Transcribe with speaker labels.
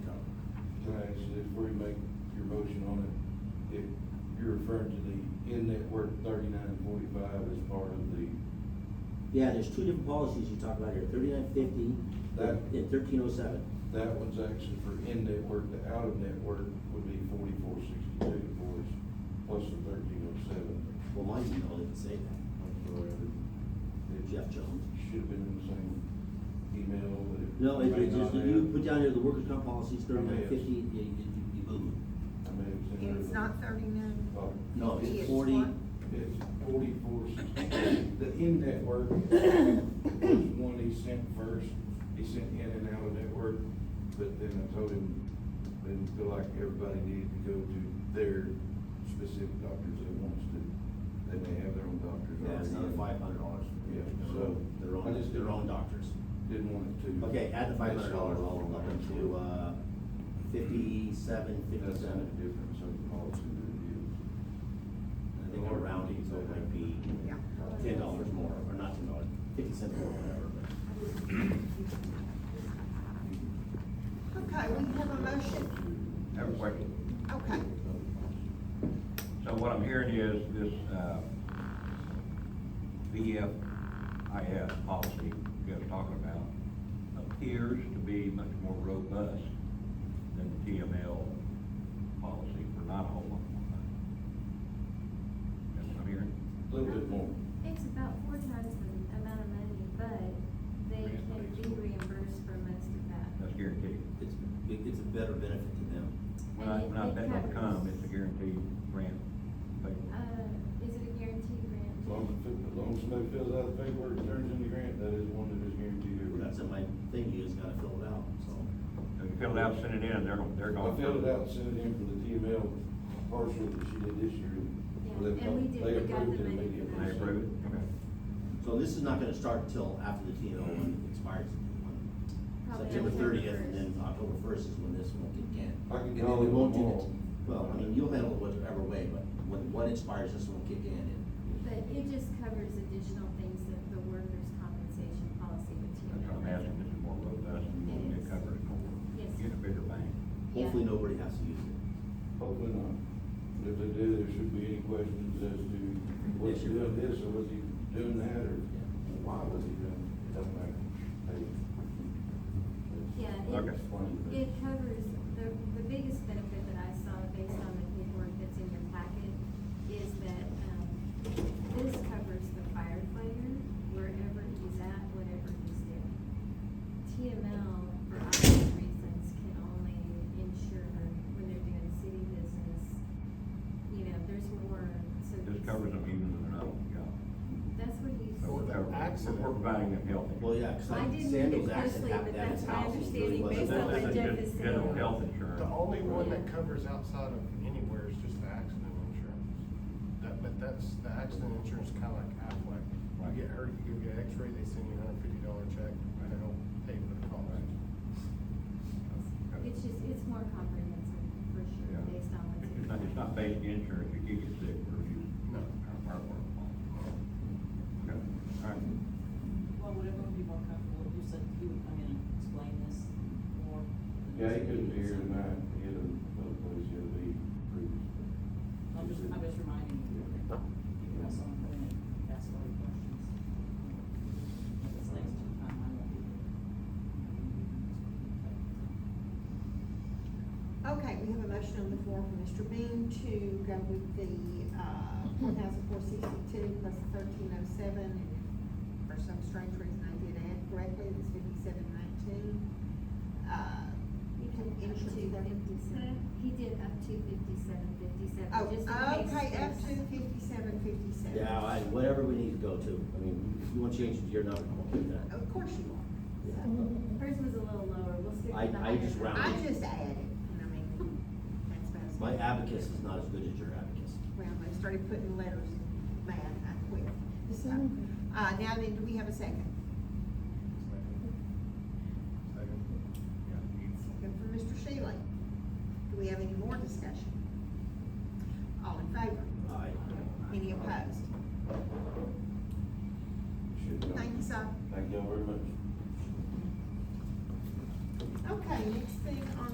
Speaker 1: before you make your motion on it, if you're referring to the in-network thirty-nine forty-five as part of the,
Speaker 2: Yeah, there's two different policies you talk about here, thirty-nine fifty
Speaker 1: That-
Speaker 2: and thirteen oh seven.
Speaker 1: that one's actually for in-network, the out-of-network would be forty-four sixty-two for us, plus the thirteen oh seven.
Speaker 2: Well, my email didn't say that. Jeff Jones.
Speaker 1: Should've been in the same email, but it.
Speaker 2: No, it
Speaker 1: may
Speaker 2: it just,
Speaker 1: not
Speaker 2: you
Speaker 1: have.
Speaker 2: put down here the workers' comp policies, thirty-nine
Speaker 1: Yes.
Speaker 2: fifty, you, you, you boom.
Speaker 1: I may have sent
Speaker 3: And
Speaker 1: it.
Speaker 3: it's not thirty-nine?
Speaker 1: Oh.
Speaker 2: No, it's
Speaker 3: Fifty is
Speaker 2: forty,
Speaker 3: one.
Speaker 1: It's forty-four sixty-two. The in-network, was one he sent first, he sent in and out of network, but then I told him, didn't feel like everybody needed to go to their specific doctors that wants to. They may have their own doctors.
Speaker 2: yeah, it's another
Speaker 1: already.
Speaker 2: five hundred dollars.
Speaker 1: Yeah,
Speaker 2: Their
Speaker 1: so
Speaker 2: own, their own,
Speaker 1: I just Mm-hmm. didn't-
Speaker 2: their own doctors.
Speaker 1: Didn't want it to.
Speaker 2: Okay, add the five hundred dollars,
Speaker 1: That's all.
Speaker 2: I'll look into, uh, fifty-seven,
Speaker 1: That's not a
Speaker 2: fifty-seven.
Speaker 1: difference of the policy that it is.
Speaker 2: I think I'm rounding, so it might be
Speaker 3: Yeah.
Speaker 2: ten dollars more, or not ten dollars, fifty cents more, whatever, but.
Speaker 3: Okay, we have a motion.
Speaker 4: Have a question.
Speaker 3: Okay.
Speaker 4: So what I'm hearing is this, uh, VFIS policy you guys are talking about appears to be much more robust than the TML policy for not a whole lot more money. That's what I'm hearing?
Speaker 1: A Little bit more.
Speaker 5: It's about four times the amount of money, but they can be reimbursed for most of that.
Speaker 4: That's guaranteed.
Speaker 2: It's, it- it's a better benefit to them.
Speaker 4: When I, when I bet on the com, it's a guaranteed grant.
Speaker 5: Uh, is it a guaranteed
Speaker 1: As long
Speaker 5: grant?
Speaker 1: as, as long as somebody fills out the paperwork and turns in the grant, that is one that is guaranteed every.
Speaker 2: That's in my thing, you just gotta fill it out, so.
Speaker 4: So you fill it out, send it in, they're, gonna- they're
Speaker 1: I
Speaker 4: gonna.
Speaker 1: filled it out, and sent it in for the TML partial that she did this year.
Speaker 5: Yeah, and we did,
Speaker 1: They
Speaker 5: we got the
Speaker 1: approved it
Speaker 5: money for
Speaker 1: immediately.
Speaker 4: They approve it? Okay.
Speaker 2: So this is not gonna start until after the TNO one expires.
Speaker 5: Probably
Speaker 2: September
Speaker 5: October
Speaker 2: thirtieth, and
Speaker 5: 1st.
Speaker 2: then October first is when this one can kick in.
Speaker 1: I can
Speaker 2: And then
Speaker 1: call
Speaker 2: we
Speaker 1: it
Speaker 2: won't do
Speaker 1: tomorrow.
Speaker 2: the- Well, I mean, you'll handle it whatever way, but when one expires, this one will kick in, and
Speaker 5: But it just covers additional things that the workers' compensation policy would take.
Speaker 4: That's what I'm asking, this is more robust, and more, it covers more,
Speaker 5: Yes.
Speaker 4: get a bigger bang.
Speaker 5: Yeah.
Speaker 2: hopefully nobody has to use it.
Speaker 1: Hopefully not. But If they do, there shouldn't be any questions as to was he doing this or was he doing that or why was he doing it? It doesn't matter. They-
Speaker 5: Yeah,
Speaker 1: I
Speaker 5: it,
Speaker 1: can explain it.
Speaker 5: it covers, the, the biggest benefit that I saw based on the paperwork that's in your packet is that, um, this covers the firefighter wherever he's at, whatever he's doing. TML, for obvious reasons, can only insure when they're doing city business, you know, there's more, so.
Speaker 4: This covers Oh, them even when they're not on the job.
Speaker 5: That's what he's.
Speaker 4: So we're covering- we're- We're providing them health.
Speaker 2: Well, yeah, cause
Speaker 5: I
Speaker 2: like
Speaker 5: didn't read it
Speaker 2: Samuel's
Speaker 5: closely,
Speaker 2: accident
Speaker 5: but
Speaker 2: happened at
Speaker 5: that's
Speaker 2: his
Speaker 5: my
Speaker 2: house. and really
Speaker 5: understanding
Speaker 2: wasn't-
Speaker 5: based on
Speaker 4: This
Speaker 5: what
Speaker 4: is
Speaker 5: Jeff
Speaker 4: just
Speaker 5: is saying.
Speaker 4: General health insurance.
Speaker 6: The only one that covers outside of anywhere is just the accident insurance. That, but that's, the accident insurance is kinda like Aflac.
Speaker 4: Right.
Speaker 6: You get hurt, you go get x-ray, they send you a hundred fifty dollar check, and they don't pay for the cost.
Speaker 5: It's just, it's more comprehensive for sure,
Speaker 4: Yeah.
Speaker 5: based on what's. in
Speaker 4: It's not, it's not
Speaker 5: there.
Speaker 4: basic insurance, if you get sick, we're using.
Speaker 6: No.
Speaker 4: Our, our work. Okay, all right.
Speaker 7: Well, would everyone be more comfortable, if you said he would come in and explain this more?
Speaker 1: Yeah, he couldn't be here tonight. He had another place he had to be.
Speaker 7: I'm just, I'm just reminding you, that you could have someone come in and ask all your questions. If it's next time, I won't be here.
Speaker 3: Okay, we have a motion on the floor from Mr. Bean to go with the, uh, one thousand four sixty-two plus thirteen oh seven. For some strange reason, I did add correctly, it's fifty-seven nineteen. Uh, you
Speaker 5: Up
Speaker 3: can
Speaker 5: to
Speaker 3: insurance there.
Speaker 5: 57. He did up to fifty-seven, fifty-seven,
Speaker 3: Oh,
Speaker 5: just in case.
Speaker 3: okay, up to
Speaker 5: there's-
Speaker 3: fifty-seven, fifty-seven.
Speaker 2: Yeah, I, whatever we need to go to, I mean, if you wanna change it to your number, I'll do that.
Speaker 3: Of course you are. So,
Speaker 5: Hers was a little lower, we'll stick
Speaker 2: I-
Speaker 5: with
Speaker 2: I
Speaker 5: the higher.
Speaker 2: just
Speaker 5: number.
Speaker 3: I
Speaker 2: rounded.
Speaker 3: just added, and I mean, that's about as.
Speaker 2: My abacus is not as good as your abacus.
Speaker 3: Well, I started putting letters in mine, I quit. So, Uh, now then, do we have a second?
Speaker 6: Second.
Speaker 3: Second for Mr. Shealy. Do we have any more discussion? All in favor?
Speaker 2: Aye.
Speaker 3: Any opposed?
Speaker 1: Should know.
Speaker 3: Thank you, sir.
Speaker 1: Thank y'all very much.